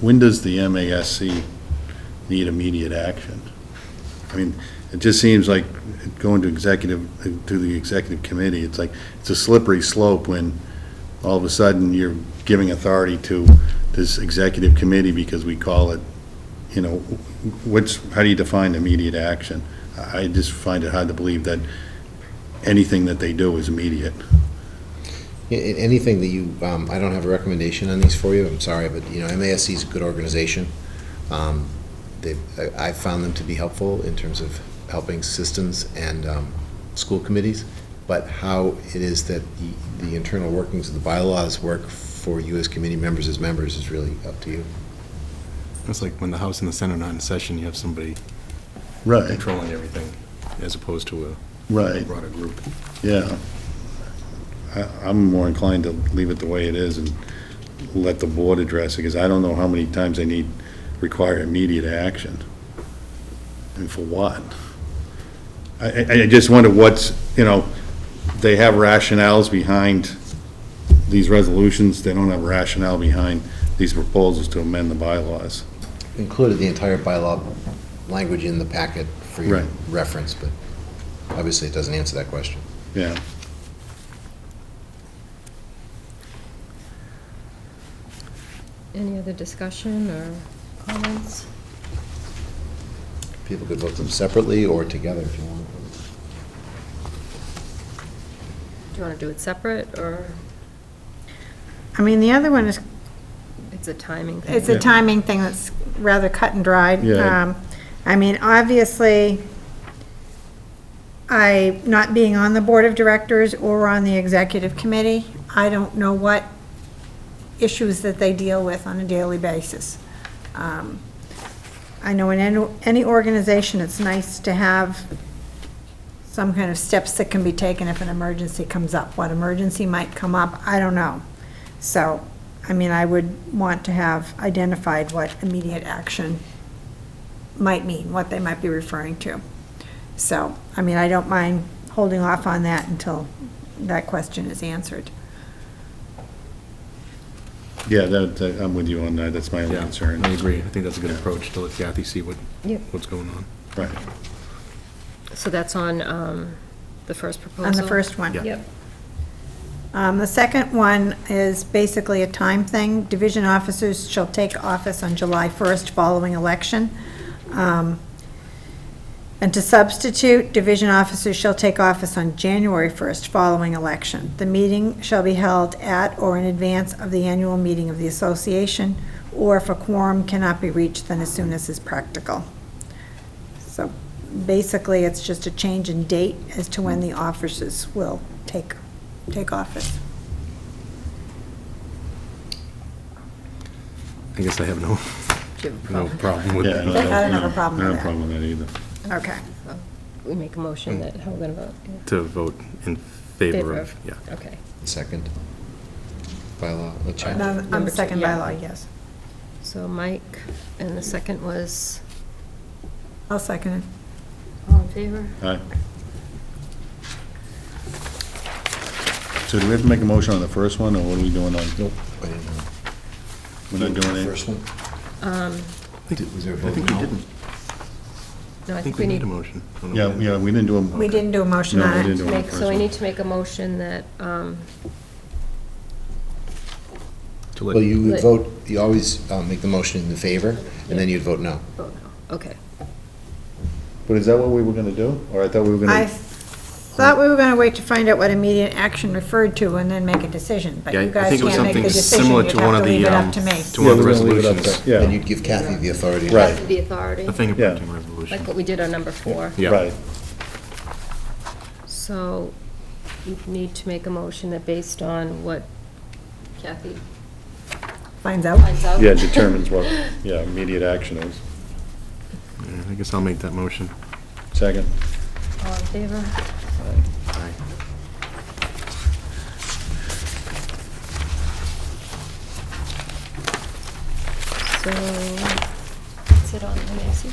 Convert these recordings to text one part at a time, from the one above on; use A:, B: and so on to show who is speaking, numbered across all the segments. A: When does the MASC need immediate action? I mean, it just seems like going to executive, to the executive committee, it's like, it's a slippery slope when all of a sudden you're giving authority to this executive committee because we call it, you know, what's, how do you define immediate action? I I just find it hard to believe that anything that they do is immediate.
B: Yeah, a- Anything that you, um, I don't have a recommendation on these for you, I'm sorry, but, you know, MASC is a good organization. Um, They've, I- I've found them to be helpful in terms of helping systems and um, school committees, but how it is that the- the internal workings of the bylaws work for you as committee members, as members, is really up to you.
C: It's like when the House and the Senate are not in session, you have somebody
A: Right,
C: controlling everything, as opposed to a
A: right.
C: broader group.
A: Yeah. I, I'm more inclined to leave it the way it is and let the board address it, because I don't know how many times they need, require immediate action. And for what? I, I, I just wonder what's, you know, they have rationales behind these resolutions, they don't have rationale behind these proposals to amend the bylaws.
B: Included the entire bylaw language in the packet for your
A: Right.
B: reference, but obviously it doesn't answer that question.
A: Yeah.
D: Any other discussion or comments?
B: People could vote them separately or together if you want.
D: Do you want to do it separate, or
E: I mean, the other one is,
D: it's a timing thing?
E: it's a timing thing that's rather cut and dried.
A: Yeah.
E: Um, I mean, obviously, I, not being on the board of directors or on the executive committee, I don't know what issues that they deal with on a daily basis. Um, I know in any- any organization, it's nice to have some kind of steps that can be taken if an emergency comes up. What emergency might come up, I don't know. So, I mean, I would want to have identified what immediate action might mean, what they might be referring to. So, I mean, I don't mind holding off on that until that question is answered.
A: Yeah, that, that- I'm with you on that, that's my only
C: Yeah,
A: concern.
C: I agree. I think that's a good
A: Yeah.
C: approach, to let Kathy see what,
D: Yep.
C: what's going on.
A: Right.
D: So that's on um, the first proposal?
E: On the first one.
C: Yeah.
D: Yep.
E: Um, The second one is basically a time thing. Division officers shall take office on July 1st following election. Um, And to substitute, division officers shall take office on January 1st following election. The meeting shall be held at or in advance of the annual meeting of the association, or if a quorum cannot be reached, then as soon as is practical. So basically, it's just a change in date as to when the officers will take, take office.
C: I guess I have no,
D: Do you have a
C: no
D: problem?
C: problem with
A: Yeah,
C: that.
E: I don't have a problem
A: I don't have a
E: with that.
A: problem with that either.
E: Okay.
D: We make a motion that, how we're going to vote? yeah.
C: Mm. To vote in favor of, yeah.
D: Okay.
B: Second bylaw, let's check.
E: And On on
D: Number
E: the
D: two,
E: second
D: yeah.
E: bylaw, yes.
D: So Mike, and the second was,
E: I'll second it.
D: all in favor?
A: Aye. So do we have to make a motion on the first one, or what are we doing on? Nope.
B: I didn't know.
A: We're not doing
B: The
A: it?
B: First one? Did- Was there a
C: I
B: vote?
C: think we
B: No.
C: didn't.
D: No,
C: I think we need a motion. I don't know
A: Yeah,
C: when.
A: yeah, we didn't do them.
E: We didn't do a motion
A: No, we
E: on
A: didn't
E: it.
A: do it on the
D: Make,
A: first
D: so we
A: one.
D: need to make a motion that, um,
C: To
B: Well,
C: let,
B: you would
D: Like-
B: vote, you always uh, make the motion in favor, and then
D: Yeah.
B: you'd vote no.
D: oh, no, okay.
A: But is that what we were gonna do? Or I thought we were
E: I
A: gonna,
E: thought we were going to wait to find out what immediate action referred to and then make a decision, but
C: Yeah, I
E: you guys
C: think it was
E: can't make the
C: something
E: decision.
C: similar
E: You'd
C: to one
E: have
C: of
E: to
C: the,
E: leave it
C: um,
E: up to me.
C: to one of the
A: Yeah, we're gonna leave it up
C: resolutions,
A: Yeah.
B: And you'd give Kathy the authority.
A: Right.
D: The authority,
C: the fingerprinting
D: like
C: resolution.
D: what we did on number four.
C: Yeah.
A: right,
D: So you need to make a motion that based on what Kathy
E: Finds out.
D: finds out.
A: yeah, determines what, yeah, immediate action is.
C: Yeah, I guess I'll make that motion.
A: Second?
D: All in favor?
C: Aye.
D: So, sit on, Nancy.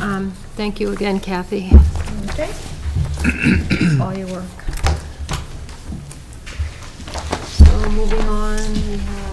D: Um, Thank you again, Kathy, for
E: Okay.
D: all your work. So moving on, we have um,